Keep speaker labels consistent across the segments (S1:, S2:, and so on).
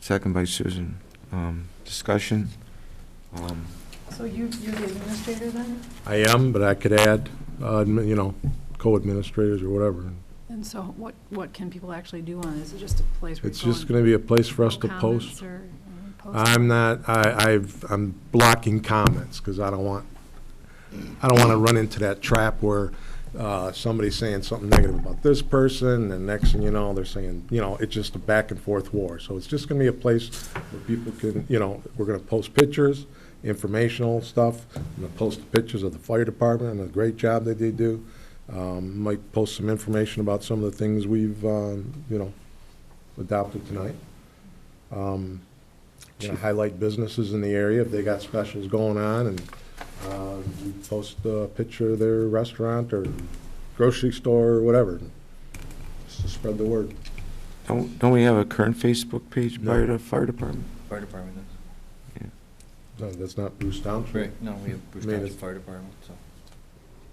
S1: second by Susan. Um, Discussion? Um,
S2: So you, you're the administrator then?
S3: I am, but I could add, uh, admi- you know, co-administrators or whatever.
S2: And so what, what can people actually do on it? Is it just a place where
S3: It's
S2: people
S3: just going to be a place for us to post. I'm not, I, I've, I'm blocking comments because I don't want, I don't want to run into that trap where uh, somebody's saying something negative about this person and next thing you know, they're saying, you know, it's just a back and forth war. So it's just going to be a place where people can, you know, we're going to post pictures, informational stuff. I'm going to post the pictures of the fire department and the great job that they do. Um, Might post some information about some of the things we've, um, you know, adopted tonight. Um, you know, highlight businesses in the area if they got specials going on, and uh, we post a picture of their restaurant or grocery store or whatever, just to spread the word.
S1: Don't don't we have a current Facebook page by
S3: No.
S1: the fire department?
S4: Fire department is.
S3: No, That's not Bruce Township.
S4: Right, no, we have Bruce
S3: I mean,
S4: Township
S3: it's-
S4: Fire Department, so.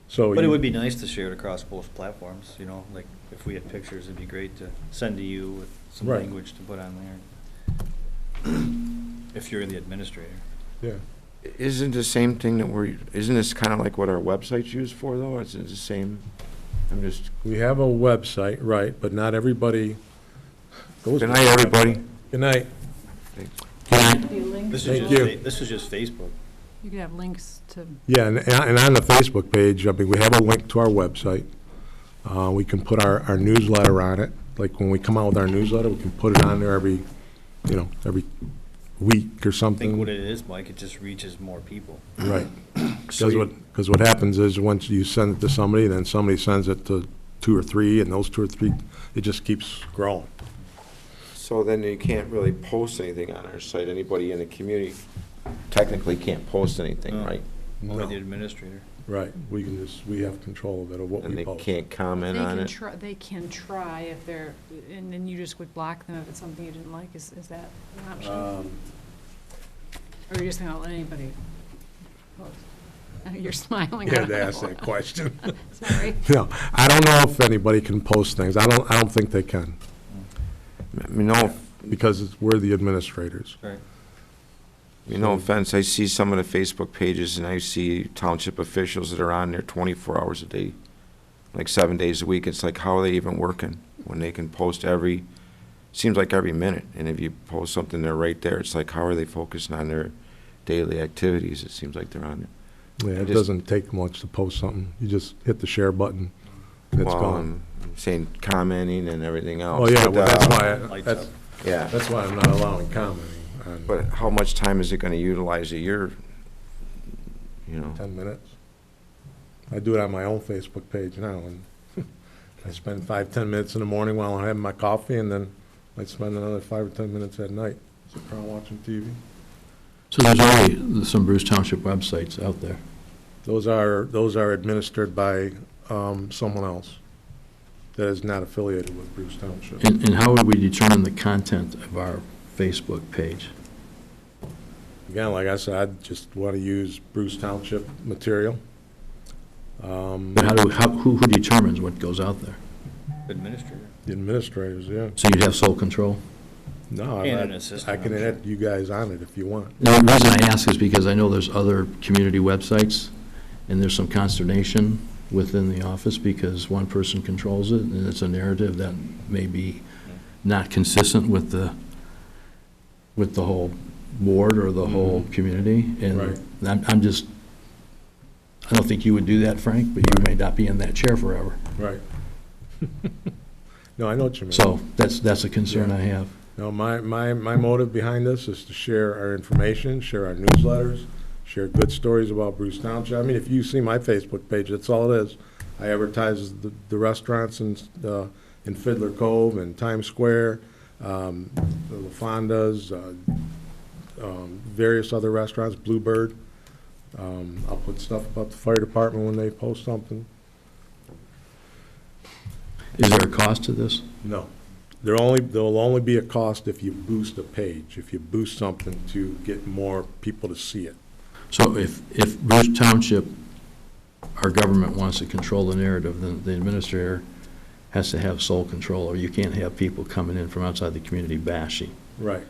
S3: So
S4: But it
S3: you-
S4: would be nice to share it across both platforms, you know, like, if we had pictures, it'd be great to send to you with some
S3: Right.
S4: language to put on there. If you're the administrator.
S3: Yeah,
S1: Isn't the same thing that we're, isn't this kind of like what our website's used for, though? It's the same, I'm just,
S3: we have a website, right, but not everybody goes.
S1: good night, everybody.
S3: Good night.
S4: This
S3: Thank
S4: is just,
S3: you.
S4: fa- this is just Facebook.
S2: You could have links to,
S3: Yeah, and, and on the Facebook page, I mean, we have a link to our website. Uh, we can put our, our newsletter on it. Like, when we come out with our newsletter, we can put it on there every, you know, every week or
S4: I think what
S3: something.
S4: it is, Mike, it just reaches more people.
S3: Right.
S1: So
S3: Because
S1: you-
S3: what, because what happens is, once you send it to somebody, then somebody sends it to two or three, and those two or three, it just keeps growing.
S1: So then you can't really post anything on our site. Anybody in the community technically can't post anything,
S4: No.
S1: right?
S4: Only the
S3: No.
S4: administrator.
S3: Right, we can just, we have control of it, of what
S1: And
S3: we
S1: they
S3: post.
S1: can't
S2: they
S1: comment on
S2: can
S1: it.
S2: try, they can try if they're, and then you just would block them if it's something you didn't like, is, is that an option? Or
S3: Um,
S2: you're just gonna let anybody post? I know You're smiling.
S3: You had to ask that question.
S2: Sorry.
S3: No, I don't know if anybody can post things. I don't, I don't think they can,
S1: I mean, no,
S3: because it's- we're the administrators.
S4: Right.
S1: I mean, no offense, I see some of the Facebook pages and I see township officials that are on there twenty-four hours a day, like seven days a week. It's like, how are they even working when they can post every, seems like every minute. And if you post something, they're right there. It's like, how are they focusing on their daily activities? It seems like they're on there.
S3: Yeah, it
S1: Just-
S3: doesn't take much to post something. You just hit the share button, and it's
S1: Well,
S3: gone.
S1: I'm Saying commenting and everything else.
S3: Oh, yeah,
S1: But,
S3: well, that's
S1: uh,
S3: why, I-
S4: Lights
S3: that's,
S4: up.
S1: Yeah.
S3: that's why I'm not allowing commenting on
S1: But how much time is it gonna utilize a year? You know,
S3: ten minutes. I do it on my own Facebook page now, and I spend five, ten minutes in the morning while I'm having my coffee, and then I spend another five or ten minutes at night, sitting around watching TV.
S5: So there's already some Bruce Township websites out there.
S3: Those are, those are administered by um, someone else that is not affiliated with Bruce Township.
S5: And, and how would we determine the content of our Facebook page?
S3: Again, like I said, I just want to use Bruce Township material. Um,
S5: But how do, how, who, who determines what goes out there?
S4: Administrator.
S3: The administrators, yeah.
S5: So you'd have sole control?
S3: No, I
S4: And an
S3: I-
S4: assistant,
S3: I can
S4: I'm sure.
S3: add you guys on it if you want.
S5: Now, the reason I ask is because I know there's other community websites, and there's some consternation within the office because one person controls it, and it's a narrative that may be not consistent with the, with the whole board or the whole community.
S3: Right.
S5: And I'm, I'm just, I don't think you would do that, Frank, but you may not be in that chair forever.
S3: Right. No, I know what you mean.
S5: So that's, that's a concern I have.
S3: No, my, my, my motive behind this is to share our information, share our newsletters, share good stories about Bruce Township. I mean, if you see my Facebook page, that's all it is. I advertise the, the restaurants in, uh, in Fiddler Cove and Times Square, um, the La Fonda's, uh, um, various other restaurants, Bluebird. Um, I'll put stuff about the fire department when they post something.
S5: Is there a cost to this?
S3: No. There'll only, there'll only be a cost if you boost a page, if you boost something to get more people to see it.
S5: So if, if Bruce Township, our government wants to control the narrative, then the administrator has to have sole control, or you can't have people coming in from outside the community bashing.
S3: Right.